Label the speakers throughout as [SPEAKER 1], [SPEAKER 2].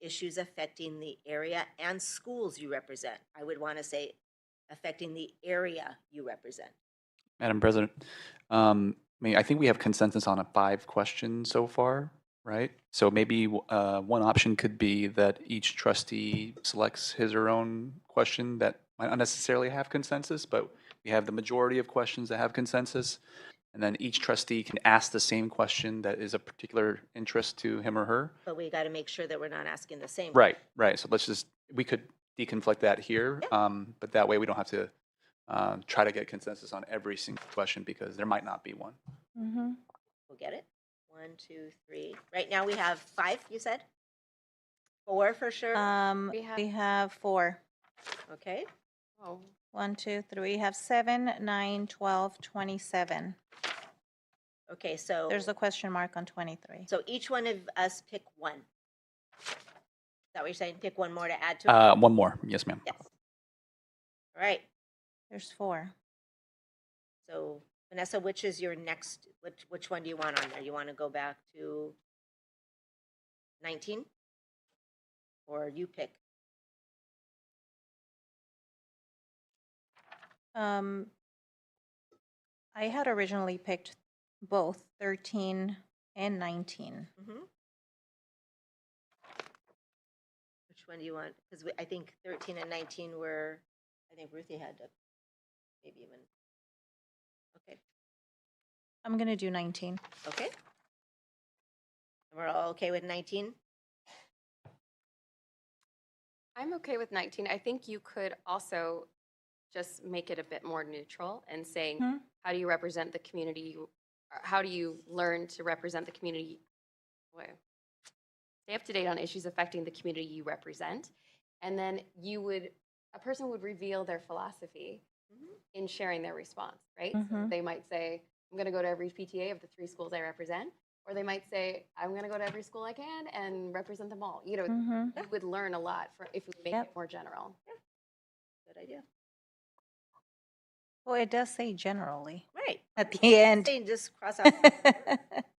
[SPEAKER 1] issues affecting the area and schools you represent. I would want to say affecting the area you represent.
[SPEAKER 2] Madam President, um, I mean, I think we have consensus on a five question so far, right? So maybe w- uh, one option could be that each trustee selects his or own question that might not necessarily have consensus, but we have the majority of questions that have consensus. And then each trustee can ask the same question that is of particular interest to him or her.
[SPEAKER 1] But we got to make sure that we're not asking the same.
[SPEAKER 2] Right, right. So let's just, we could deconflict that here, um, but that way we don't have to uh, try to get consensus on every single question because there might not be one.
[SPEAKER 3] Mm-hmm.
[SPEAKER 1] We'll get it. One, two, three. Right now, we have five, you said? Four for sure.
[SPEAKER 4] Um,
[SPEAKER 3] We have-
[SPEAKER 4] we have four.
[SPEAKER 1] Okay.
[SPEAKER 3] Oh,
[SPEAKER 4] One, two, three. We have seven, nine, twelve, twenty-seven.
[SPEAKER 1] Okay, so.
[SPEAKER 4] There's a question mark on twenty-three.
[SPEAKER 1] So each one of us pick one. Is that what you're saying? Pick one more to add to it?
[SPEAKER 2] Uh, one more, yes, ma'am.
[SPEAKER 1] Yes. All right.
[SPEAKER 4] There's four.
[SPEAKER 1] So Vanessa, which is your next, which, which one do you want on there? You want to go back to 19? Or you pick?
[SPEAKER 4] Um, I had originally picked both thirteen and nineteen.
[SPEAKER 1] Mhm. Which one do you want? Because I think 13 and 19 were, I think Ruthie had to, maybe even. Okay,
[SPEAKER 4] I'm gonna do nineteen.
[SPEAKER 1] okay. And We're all okay with 19?
[SPEAKER 3] I'm okay with 19. I think you could also just make it a bit more neutral and saying,
[SPEAKER 4] Hmm.
[SPEAKER 3] how do you represent the community? you- or How do you learn to represent the community? Wait. Stay up to date on issues affecting the community you represent. And then you would, a person would reveal their philosophy
[SPEAKER 1] Mhm.
[SPEAKER 3] in sharing their response, right? So
[SPEAKER 4] Mhm.
[SPEAKER 3] they might say, I'm going to go to every PTA of the three schools I represent. Or they might say, I'm going to go to every school I can and represent them all. You know,
[SPEAKER 4] Mm-hmm.
[SPEAKER 3] we would learn a lot for, if we make
[SPEAKER 4] Yep.
[SPEAKER 3] it more general.
[SPEAKER 1] Good idea.
[SPEAKER 4] Well, Oh, it does say generally
[SPEAKER 1] Right.
[SPEAKER 4] at the end.
[SPEAKER 1] Saying just cross out.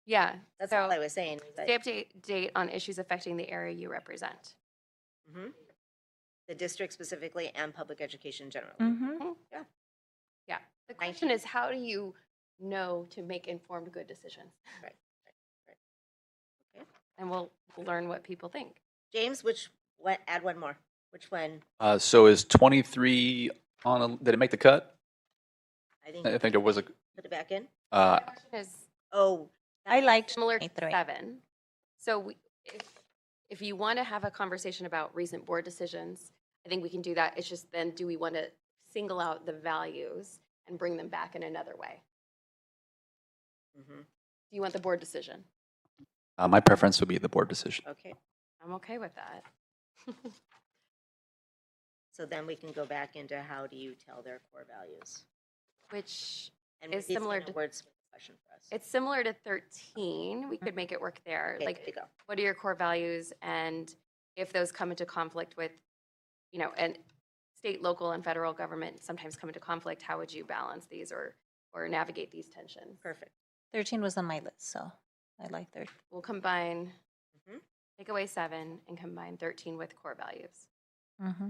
[SPEAKER 3] Yeah.
[SPEAKER 1] That's
[SPEAKER 3] So-
[SPEAKER 1] all I was saying. is that-
[SPEAKER 3] Stay up to date on issues affecting the area you represent. Mm-hmm.
[SPEAKER 1] Mhm. The district specifically and public education generally.
[SPEAKER 3] Mm-hmm.
[SPEAKER 4] Mhm.
[SPEAKER 3] The question is, how do you know to make informed, good decisions?
[SPEAKER 1] Right, right, right. Okay.
[SPEAKER 3] And we'll learn what people think.
[SPEAKER 1] James, which, what, add one more. Which one?
[SPEAKER 2] Uh, so is 23 on, a, did it make the cut?
[SPEAKER 1] I think.
[SPEAKER 2] I think there was a,
[SPEAKER 1] Put it back in?
[SPEAKER 2] uh,
[SPEAKER 3] The question is
[SPEAKER 1] Oh.
[SPEAKER 4] I liked
[SPEAKER 3] similar to
[SPEAKER 4] 23.
[SPEAKER 3] seven. So we, if, if you want to have a conversation about recent board decisions, I think we can do that. It's just then, do we want to single out the values and bring them back in another way?
[SPEAKER 1] Mhm.
[SPEAKER 3] Do you want the board decision?
[SPEAKER 2] uh, my preference would be the board decision.
[SPEAKER 1] Okay,
[SPEAKER 3] I'm okay with that.
[SPEAKER 1] so then we can go back into how do you tell their core values?
[SPEAKER 3] Which
[SPEAKER 1] And
[SPEAKER 3] It's
[SPEAKER 1] Ruthie's
[SPEAKER 3] similar
[SPEAKER 1] gonna
[SPEAKER 3] to-
[SPEAKER 1] Wordsmith the question for us.
[SPEAKER 3] It's similar to 13. We could make it work there.
[SPEAKER 1] Mm-hmm. Okay, there you
[SPEAKER 3] Like,
[SPEAKER 1] go.
[SPEAKER 3] what are your core values? And if those come into conflict with, you know, and state, local, and federal government sometimes come into conflict, how would you balance these or, or navigate these tensions?
[SPEAKER 1] Perfect.
[SPEAKER 4] Thirteen was on my list, so I like thirteen.
[SPEAKER 3] We'll combine,
[SPEAKER 1] Mhm.
[SPEAKER 3] take away seven and combine 13 with core values.
[SPEAKER 4] Mm-hmm.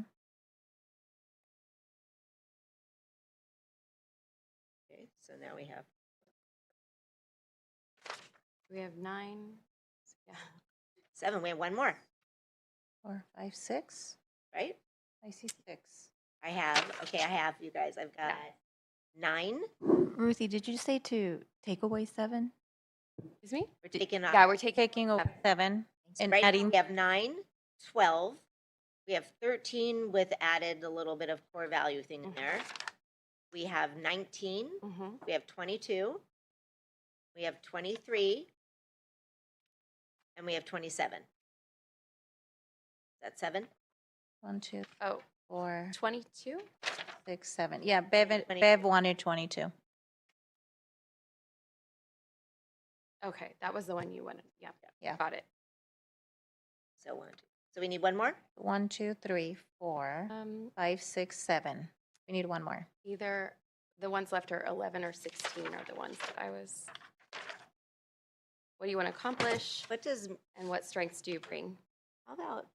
[SPEAKER 1] Okay, so now we have,
[SPEAKER 3] We have nine. Yeah.
[SPEAKER 1] seven, we have one more,
[SPEAKER 4] Four, five, six.
[SPEAKER 1] right?
[SPEAKER 4] I see six.
[SPEAKER 1] I have, okay, I have, you guys, I've got nine.
[SPEAKER 5] Ruthie, did you say to take away seven?
[SPEAKER 3] Excuse me?
[SPEAKER 1] We're taking off.
[SPEAKER 3] Yeah, we're taking.
[SPEAKER 4] Taking over seven and
[SPEAKER 1] Right now,
[SPEAKER 4] adding
[SPEAKER 1] we have nine, 12. We have 13 with added a little bit of core value thing in
[SPEAKER 3] Mhm.
[SPEAKER 1] there.
[SPEAKER 4] Mm-hmm.
[SPEAKER 1] We have 19,
[SPEAKER 3] Mhm.
[SPEAKER 1] we have 22, we have 23, and we have 27. Is that seven?
[SPEAKER 4] one, two,
[SPEAKER 3] Oh,
[SPEAKER 4] four,
[SPEAKER 3] 22?
[SPEAKER 4] six, seven. Yeah, Bev,
[SPEAKER 1] 22.
[SPEAKER 4] Bev wanted twenty-two.
[SPEAKER 3] Okay, that was the one you wanted. Yeah.
[SPEAKER 4] Yeah.
[SPEAKER 3] Got it.
[SPEAKER 1] So one, two. So we need one more?
[SPEAKER 4] One, two, three, four,
[SPEAKER 3] Um,
[SPEAKER 4] five, six, seven. We need one more.
[SPEAKER 3] either the ones left are 11 or 16 are the ones that I was. What do you want to accomplish
[SPEAKER 1] What does,
[SPEAKER 3] and what strengths do you bring?
[SPEAKER 1] how about